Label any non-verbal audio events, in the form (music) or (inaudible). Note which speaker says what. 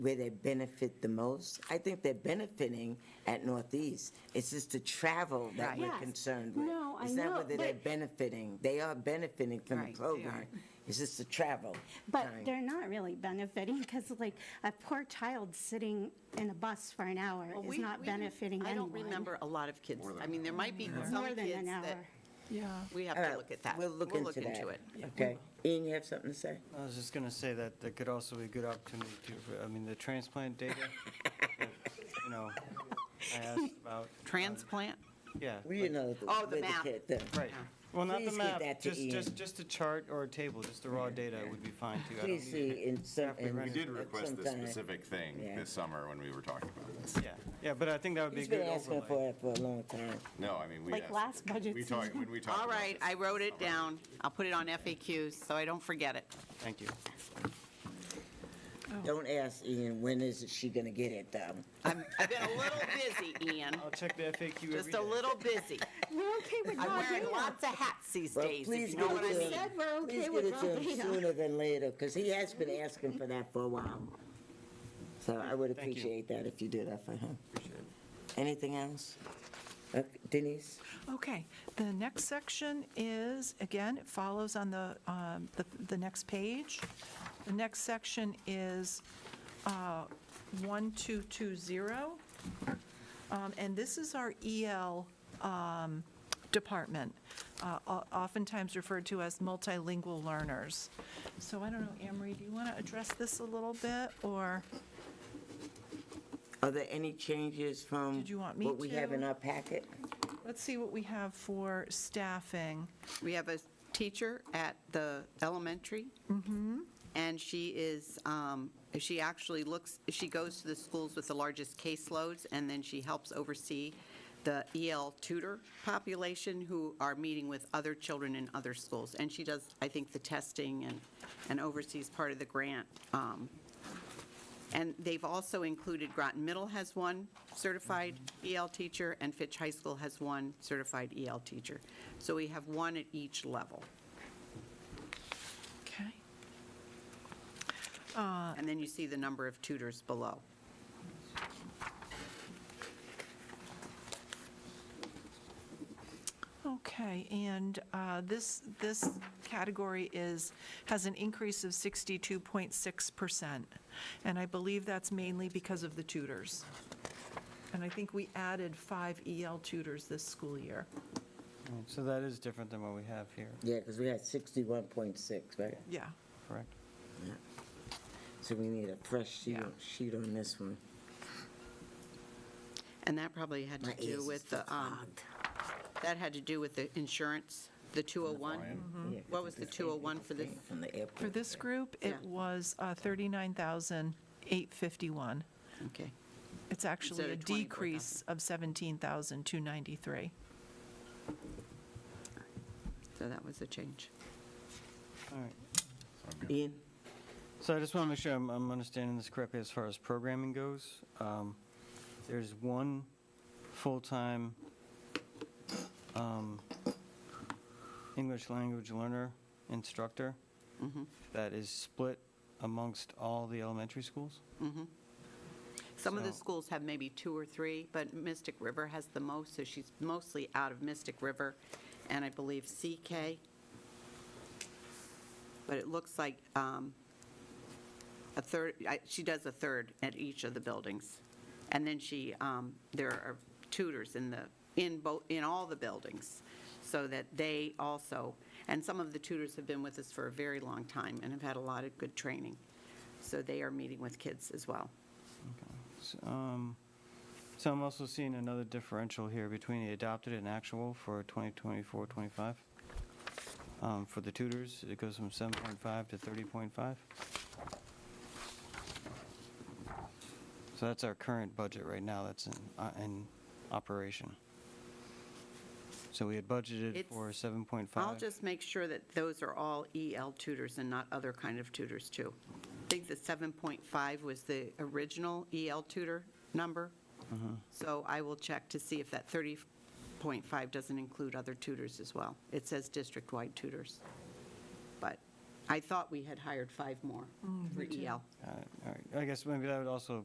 Speaker 1: where they benefit the most. I think they're benefiting at Northeast. It's just the travel that
Speaker 2: Right.
Speaker 1: we're
Speaker 3: Yes.
Speaker 1: concerned with.
Speaker 3: No, I
Speaker 1: It's not
Speaker 3: know,
Speaker 1: whether they're
Speaker 3: but-
Speaker 1: benefiting. They are benefiting from the
Speaker 2: Right, they
Speaker 1: program.
Speaker 2: are.
Speaker 1: It's just the travel.
Speaker 3: But
Speaker 1: time.
Speaker 3: they're not really benefiting because like a poor child sitting in a bus for an hour
Speaker 2: Well,
Speaker 3: is
Speaker 2: we-
Speaker 3: not
Speaker 2: we didn't-
Speaker 3: benefiting anyone.
Speaker 2: I don't remember a lot of kids. I mean, there might be some
Speaker 3: More than
Speaker 2: kids
Speaker 3: an
Speaker 2: that,
Speaker 3: hour.
Speaker 4: Yeah.
Speaker 2: we have
Speaker 1: All
Speaker 2: to
Speaker 1: right,
Speaker 2: look at that.
Speaker 1: We'll look into that. Okay. Ian, you have something to say?
Speaker 5: I was just going to say that that could also be a good opportunity to, for- I mean, the transplant data, that, you know, I asked about,
Speaker 2: Transplant?
Speaker 5: yeah.
Speaker 1: We
Speaker 5: like-
Speaker 1: didn't know.
Speaker 2: Oh, the
Speaker 1: where
Speaker 2: map.
Speaker 1: kid- the-
Speaker 5: Right. Well, not the
Speaker 1: Please give
Speaker 5: map,
Speaker 1: that to
Speaker 5: just,
Speaker 1: Ian.
Speaker 5: just, just a chart or a table, just the raw data would be fine too. I don't
Speaker 1: Please
Speaker 5: need-
Speaker 1: see in some.
Speaker 5: We
Speaker 1: in-
Speaker 5: did
Speaker 6: We did
Speaker 1: at
Speaker 6: request
Speaker 1: some
Speaker 6: this
Speaker 1: time.
Speaker 6: specific thing
Speaker 1: Yeah.
Speaker 6: this summer when we were talking about this.
Speaker 5: Yeah, yeah, but I think that would be a
Speaker 1: He's
Speaker 5: good
Speaker 1: been asking for
Speaker 5: overlay.
Speaker 1: it for a long time.
Speaker 6: No, I mean, we
Speaker 3: Like
Speaker 6: asked-
Speaker 3: last budget
Speaker 6: we talked-
Speaker 3: season.
Speaker 6: When we talked
Speaker 2: All
Speaker 6: about
Speaker 2: right,
Speaker 6: this.
Speaker 2: I wrote it down. I'll put it on FAQs so I don't forget it.
Speaker 5: Thank you.
Speaker 1: Don't ask Ian, when is she gonna get it though?
Speaker 2: I'm, I've been a little busy,
Speaker 1: (laughs)
Speaker 2: Ian,
Speaker 5: I'll check the FAQ every
Speaker 2: just a
Speaker 5: day.
Speaker 2: little busy.
Speaker 3: We're okay with
Speaker 2: I'm wearing
Speaker 3: Rob
Speaker 2: lots of hats these
Speaker 1: Well,
Speaker 2: days, if
Speaker 1: please
Speaker 2: you know
Speaker 1: give
Speaker 2: what
Speaker 1: it
Speaker 2: I
Speaker 1: to
Speaker 2: mean.
Speaker 1: him.
Speaker 3: said we're
Speaker 1: Please
Speaker 3: okay
Speaker 1: get
Speaker 3: with
Speaker 1: it
Speaker 3: Rob
Speaker 1: to him sooner than later, because he has been asking for that for a while. So I would
Speaker 5: Thank you.
Speaker 1: appreciate that if you do that for him. Anything else? Uh, Denise?
Speaker 4: Okay, the next section is, again, it follows on the, um, the, the next page. The next section is uh, 1220. Um, And this is our EL um, department, uh, o- oftentimes referred to as multilingual learners. So I don't know, Anne Marie, do you want to address this a little bit, or?
Speaker 1: Are there any changes from?
Speaker 4: Did you want me
Speaker 1: What we have
Speaker 4: to?
Speaker 1: in our packet?
Speaker 4: Let's see what we have for staffing.
Speaker 2: We have a teacher at the elementary. And she is, um, she actually looks, she goes to the schools with the largest caseloads, and then she helps oversee the EL tutor population who are meeting with other children in other schools. And she does, I think, the testing and, and oversees part of the grant. um, and they've also included Groton Middle has one certified EL teacher, and Fitch High School has one certified EL teacher. So we have one at each level.
Speaker 4: Okay.
Speaker 2: And then you see the number of tutors below.
Speaker 4: Okay, and uh, this, this category is, has an increase of 62.6%. And I believe that's mainly because of the tutors. And I think we added five EL tutors this school year.
Speaker 5: Alright, So that is different than what we have here,
Speaker 1: Yeah, because we had sixty-one point six, right?
Speaker 4: Yeah.
Speaker 5: correct?
Speaker 1: So we need a fresh sheet,
Speaker 4: Yeah.
Speaker 1: sheet on this one.
Speaker 2: And that probably had to
Speaker 1: My ears
Speaker 2: do
Speaker 1: is
Speaker 2: with the, um,
Speaker 1: fogged.
Speaker 2: that had to do with the insurance, the 201.
Speaker 1: Yeah, 'cause
Speaker 2: What
Speaker 1: it
Speaker 2: was the
Speaker 1: just
Speaker 2: 201
Speaker 1: came
Speaker 2: for this?
Speaker 1: From the airport.
Speaker 4: For this group,
Speaker 2: Yeah.
Speaker 4: it was uh, 39,851.
Speaker 2: Okay.
Speaker 4: It's actually a
Speaker 2: of 24,000.
Speaker 4: decrease of 17,293.
Speaker 2: So that was a change.
Speaker 5: All right.
Speaker 1: Ian?
Speaker 5: So I just want to make sure I'm, I'm understanding this correctly as far as programming goes. Um, There's one full-time um, English language learner instructor that is split amongst all the elementary schools?
Speaker 2: Some of the
Speaker 5: So-
Speaker 2: schools have maybe two or three, but Mystic River has the most, so she's mostly out of Mystic River, and I believe CK. But it looks like um, a third, I- she does a third at each of the buildings. And then she, um, there are tutors in the, in both, in all the buildings, so that they also, and some of the tutors have been with us for a very long time and have had a lot of good training. So they are meeting with kids as well.
Speaker 5: S- um, So I'm also seeing another differential here between the adopted and actual for 2024-25. Um, For the tutors, it goes from 7.5 to 30.5. So that's our current budget right now that's in, uh, in operation. So we had budgeted
Speaker 2: It's-
Speaker 5: for 7.5.
Speaker 2: I'll just make sure that those are all EL tutors and not other kind of tutors, too. I think the 7.5 was the original EL tutor number, so I will check to see if that 30.5 doesn't include other tutors as well. It says district-wide tutors, but
Speaker 7: I thought we had hired five more for EL.
Speaker 2: E
Speaker 5: Uh,
Speaker 2: All right, I guess maybe that would also